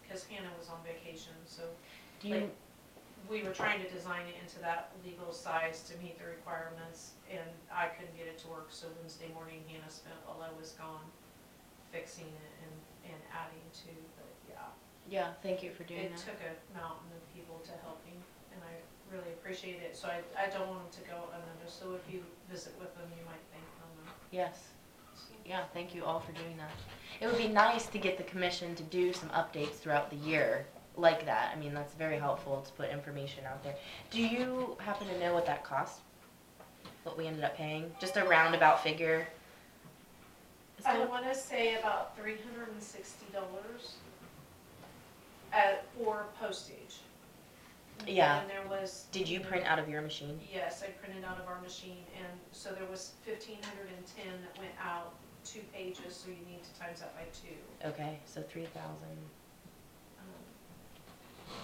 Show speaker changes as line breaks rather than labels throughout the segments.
because Hannah was on vacation, so
Do you,
Like- we were trying to design it into that legal size to meet the requirements, and I couldn't get it to work, so Wednesday morning Hannah spent while I was gone fixing it and, and adding to, but yeah.
yeah, thank you for doing
It
that.
took a mountain of people to help me, and I really appreciate it, so I, I don't want them to go unnoticed, so if you visit with them, you might "Oh, thank them.
Yes, yeah, thank you all for doing that. It would be nice to get the commission to do some updates throughout the year like that. I mean, that's very helpful to put information out there. Do you happen to know what that cost? What we ended up paying? Just a roundabout figure? It's
I
kind of-
wanna say about three hundred and sixty dollars at, or postage.
Yeah.
And there was.
Did you print out of your machine?
Yes, I printed out of our machine, and so there was fifteen hundred and ten that went out, two pages, so you need to times that by two.
Okay, so three thousand.
Um,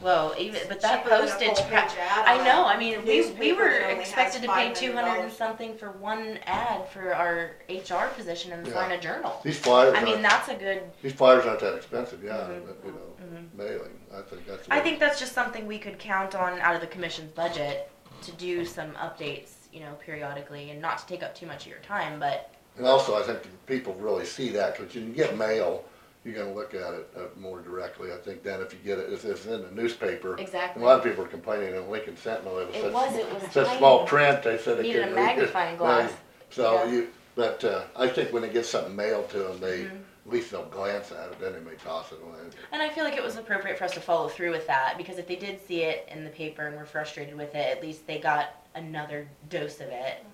Whoa, even, but that
Cheaper than a
postage,
full-page
pa-
ad
I
on
know, I mean, we, we
newspaper
were
that only has
expected to pay
$500
two hundred and something for one ad for our HR position in the
Yeah.
Florida Journal.
These flyers,
I mean,
aren't,
that's a good,
these flyers aren't that expensive, yeah,
Mhm.
but, you know,
Mm-hmm.
mhm.
mailing, I think that's. the
I
way-
think that's just something we could count on out of the commission's budget to do some updates, you know, periodically and not to take up too much of your time, but,
And also, I think people really see that, cause you can get mail, you're gonna look at it uh, more directly, I think, than if you get it, if it's in the newspaper. A
Exactly.
lot of people are complaining in Lincoln Sentinel, it was
It
such.
was, it was
Such small
tiny.
print, they said they
Needed a
couldn't read it.
magnifying glass,
So
yeah.
you, but, uh, I think when they get something mailed to them, they,
Mm-hmm.
at least they'll glance at it, then they may toss it away.
and I feel like it was appropriate for us to follow through with that, because if they did see it in the paper and were frustrated with it, at least they got another dose of it.
Mm-hmm.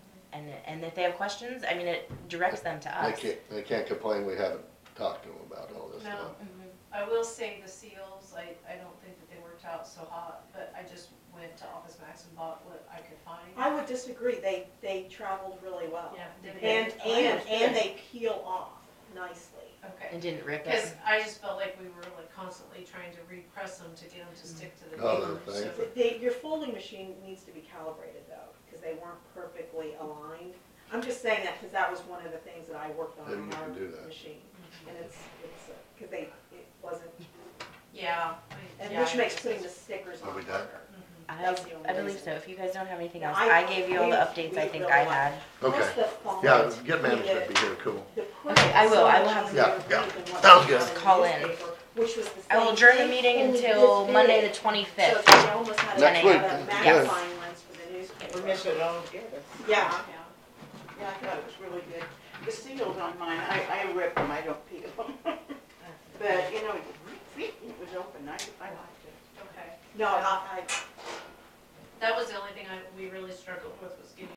And, and if they have questions, I mean, it directs them to
They
us.
can't, they can't complain, we haven't talked to them about all this
No.
stuff.
Mm-hmm.
Mhm.
I will say the seals, I, I don't think that they worked out so hot, but I just went to Office Max and bought what I could find.
I would disagree, they, they traveled really well.
Yeah, did they-
And,
Oh,
and, and they peel off nicely.
Okay,
And didn't rip
because
it.
I just felt like we were like constantly trying to repress them to get them to stick to the
Oh,
paper,
the
so.
thing.
They, your folding machine needs to be calibrated though, because they weren't perfectly aligned. I'm just saying that because that was one of the things that I worked on
Then
in
you
our
can do that.
machine. And it's, it's, because they, it wasn't,
Yeah. I-
and
yeah,
which
I-
makes putting the stickers
Are
on
we
harder.
done?
I,
That's the only
I believe
reason.
so. If you guys don't have anything
No,
else,
I-
I gave you all the
we-
updates I
we
think
will
I
not.
had.
Okay,
Plus the font,
yeah, get
we
management
did-
be here, cool.
The print
Okay, I
is
will.
so
I will
much
have-
easier
Yeah,
to read
yeah.
than what
Sounds
was on
good.
the
Call in.
newspaper, Which was the same.
I will adjourn the
thing,
meeting
only
until
this
Monday
big.
the
So
twenty-fifth.
they almost had to
Next
have
week,
that
yes.
magnifying lens for the
We
newspaper.
missed it all together.
Yeah,
Yeah.
Yeah, I thought it was really good. The seals on mine, I, I rip them, I don't peel them. But, you know, it was open, I, I liked it.
Okay,
no, I, I,
that was the only thing I, we really struggled with was getting